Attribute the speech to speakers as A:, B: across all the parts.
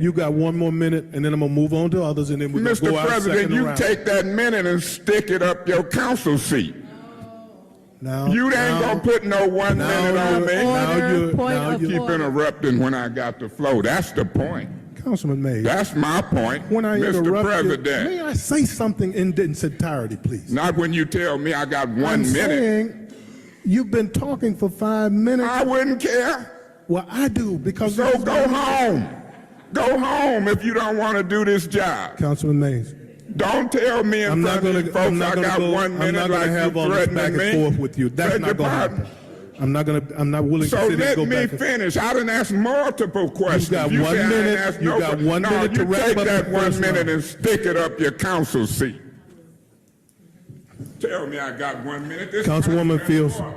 A: You got one more minute, and then I'm gonna move on to others, and then we're gonna
B: Mr.
A: go out
B: President,
A: second
B: you
A: round.
B: take that minute and stick it up your council seat.
A: Now,
B: You ain't gonna put no one
A: now
B: minute on
A: you're-
B: me.
A: now
C: Order,
A: you're-
C: point
A: now
C: of
A: you're-
B: Keep interrupting when I got the flow. That's the point.
A: Councilman May.
B: That's my point,
A: when I
B: Mr.
A: interrupt
B: President.
A: you, may I say something in its entirety, please?
B: Not when you tell me I got
A: I'm
B: one minute.
A: saying you've been talking for five minutes.
B: I wouldn't care.
A: well, I do because
B: So go home. Go home if you don't want to do this job.
A: Councilman Mays.
B: Don't tell me in
A: I'm not
B: front
A: gonna.
B: of you
A: I'm
B: folks I
A: not gonna
B: got
A: go.
B: one
A: I'm not
B: minute
A: gonna
B: like you
A: have all this back
B: threatening
A: and
B: me.
A: forth with you. That's
B: Beg
A: not
B: your
A: gonna
B: pardon.
A: happen. I'm not gonna. I'm not willing
B: So
A: to sit and
B: let
A: go
B: me
A: back. and-
B: finish. I didn't ask multiple questions.
A: got one
B: said I didn't
A: minute-
B: ask
A: you
B: no
A: got
B: que-
A: one
B: no,
A: minute to
B: you
A: wrap
B: take
A: up
B: that
A: the
B: one
A: first
B: minute
A: round.
B: and stick it up your council seat. Tell me I got one minute. This
A: Councilwoman
B: president's
A: Fields,
B: fault.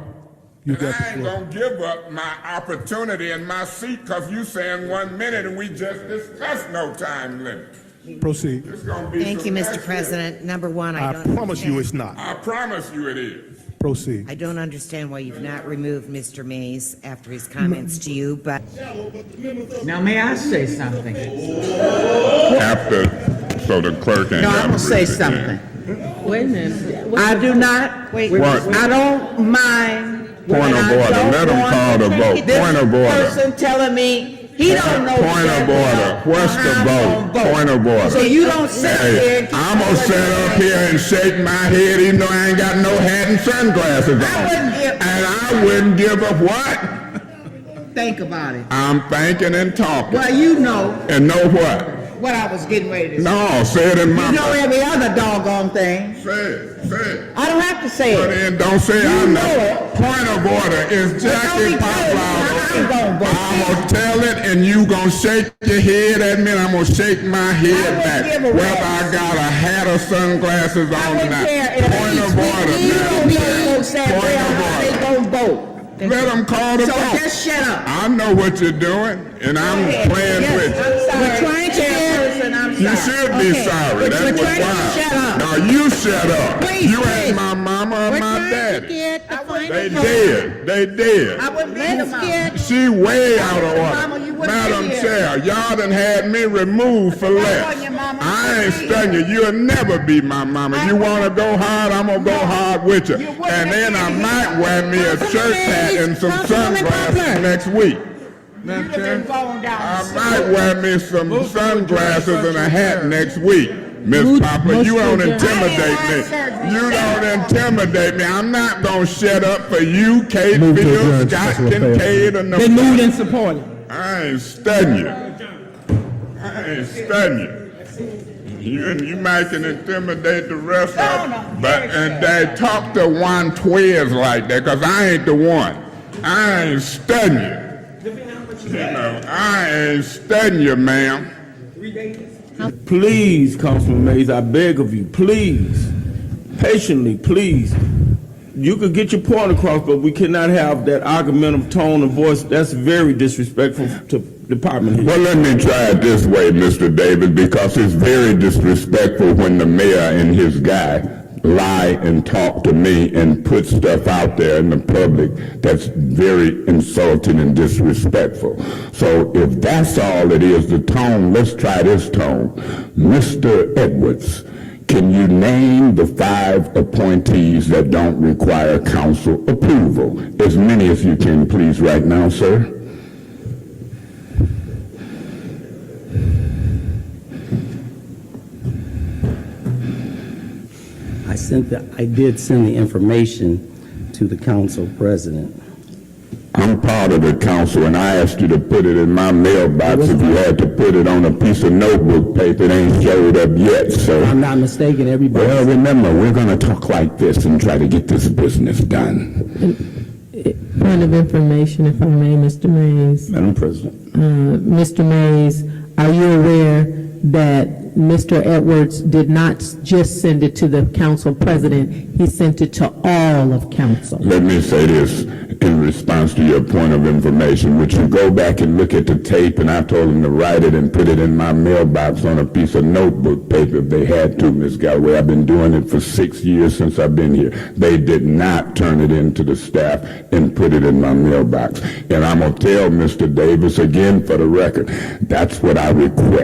A: you
B: and
A: got the
B: I ain't
A: floor.
B: gonna give up my opportunity and my seat because you saying one minute and we just discussed no time limit.
A: Proceed.
B: It's gonna be
C: Thank you,
B: some
C: Mr.
B: extra-
C: President. Number one, I
A: I
C: don't.
A: promise you, it's not.
B: I promise you it is.
A: Proceed.
C: I don't understand why you've not removed Mr. Mays after his comments to you, but
D: Now, may I say something?
B: After, so the clerk ain't
D: No,
B: gotta
D: I'm gonna say
B: read it down.
D: something. Wait a minute. I do not, wait,
B: What?
D: I don't mind.
B: Point
D: when
B: of
D: I
B: order.
D: don't
B: Let 'em
D: want
B: call the vote.
D: this
B: Point of order.
D: Person telling me he don't know.
B: Point of
D: exactly
B: order.
D: how-
B: What's the
D: how I'm
B: vote?
D: gonna vote.
B: Point of order.
D: So you don't sit there.
B: Hey,
D: and keep
B: I'm gonna
D: telling
B: sit
D: me-
B: up here and shake my head even though I ain't got no hat and sunglasses on.
D: I wouldn't give-
B: And I wouldn't give up what?
D: Think about it.
B: I'm thinking and talking.
D: Well, you know
B: And know what?
D: what I was getting ready to say.
B: No, say it in my
D: You know
B: mouth.
D: every other doggone thing.
B: Say it, say it.
D: I don't have to say
B: But
D: it.
B: then don't say
D: You
B: I
D: know
B: know. Point of order is Jackie
D: don't be telling me
B: Poplar.
D: how I'm gonna vote.
B: I'm gonna tell it and you gonna shake your head at me and I'm gonna shake my head
D: wouldn't
B: back.
D: give a
B: Whether
D: rat's.
B: I got a hat or sunglasses on
D: I
B: or
D: don't
B: not.
D: care. If
B: Point
D: he's
B: of order,
D: speaking, you
B: Madam
D: don't
B: Chair.
D: know exactly
B: Point of
D: how
B: order.
D: they gonna vote.
B: Let them call the
D: So
B: vote.
D: just shut up.
B: I know what you're doing, and I'm playing with you.
D: We're trying to get. I'm
B: You should be sorry.
D: But
B: That
D: you're
B: was
D: trying to
B: wild.
D: shut up.
B: Now you shut up.
D: Please,
B: you ain't
D: please.
B: my mama or my
D: We're trying to
B: daddy.
D: get the final
B: They
D: vote.
B: did. They did.
D: I wouldn't let them out.
B: She way out of
D: Mama,
B: order.
D: you wouldn't
B: Madam
D: be here.
B: Chair, y'all done had me removed for less.
D: on you, Mama.
B: I
D: You
B: ain't
D: wouldn't be
B: stunning you. You'll never be my mama.
D: I
B: You
D: wouldn't-
B: wanna go hard, I'm gonna go hard with you.
D: You wouldn't
B: And then I
D: have been
B: might
D: here.
B: wear me a
D: Councilman
B: church hat
D: Mays,
B: and some
D: Councilwoman Poplar.
B: sunglasses next week.
D: You'd have been going
B: I
D: down.
B: might wear me some sunglasses and a hat next week. Miss Poplar, you don't intimidate me. You don't intimidate me. I'm not gonna shut up for you, Kate
E: Move to
B: Fields,
E: adjourn,
B: Scott
E: Councilor Fairfax.
B: Kincaid, or
E: Been moved
B: nobody.
E: and supported.
B: I ain't stunning you. I ain't stunning you. You, you might can intimidate the rest of them, but, and they talk to one twins like that, cause I ain't the one. I ain't stunning you. You know, I ain't studying you, ma'am.
F: Please, Councilman Mays, I beg of you, please, patiently, please. You could get your point across, but we cannot have that argumentative tone and voice. That's very disrespectful to department heads.
B: Well, let me try it this way, Mr. Davis, because it's very disrespectful when the mayor and his guy lie and talk to me and put stuff out there in the public that's very insulting and disrespectful. So if that's all it is, the tone, let's try this tone. Mr. Edwards, can you name the five appointees that don't require council approval? As many as you can, please, right now, sir.
G: I sent the, I did send the information to the council president.
B: I'm part of the council, and I asked you to put it in my mailbox. If you had to put it on a piece of notebook paper, it ain't showed up yet,
G: If I'm
B: so.
G: not mistaken,
B: Well,
G: everybody,
B: remember, we're gonna talk like this and try to get this business done.
H: Point of information, if I may, Mr. Mays.
B: Madam President.
H: Uh, Mr. Mays, are you aware that Mr. Edwards did not just send it to the council president, he sent it to all of council.
B: Let me say this in response to your point of information. Would you go back and look at the tape? And I told them to write it and put it in my mailbox on a piece of notebook paper if they had to, Ms. Galway. I've been doing it for six years since I've been here. They did not turn it in to the staff and put it in my mailbox. And I'm going to tell Mr. Davis again for the record, that's what I request.